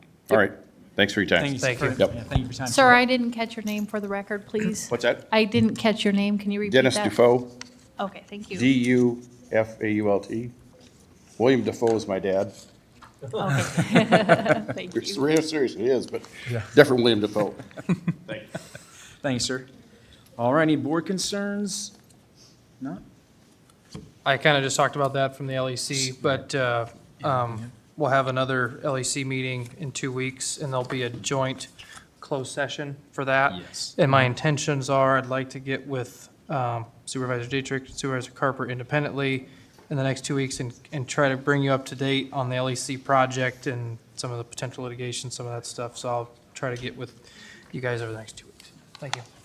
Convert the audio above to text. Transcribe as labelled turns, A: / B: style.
A: All right. Thanks for your time.
B: Thank you.
A: Yep.
B: for- Thank you for your time.
C: Sir, I didn't catch your name for the record, please.
A: What's that?
C: I didn't catch your name. Can you repeat that?
A: Dennis Dufault,
C: Okay, thank you.
A: D-U-F-A-U-L-T. William Defoe is my dad.
C: Okay. Thank you.
A: Seriously, he is, but different William Defoe.
B: Thanks, sir. All right, any board concerns? No?
D: I kind of just talked about that from the LEC, but uh, um, we'll have another LEC meeting in two weeks, and there'll be a joint closed session for that.
B: Yes.
D: And my intentions are, I'd like to get with um, Supervisor Dietrich, Supervisor Carper independently in the next two weeks and, and try to bring you up to date on the LEC project and some of the potential litigation, some of that stuff. So I'll try to get with you guys over the next two weeks. Thank you.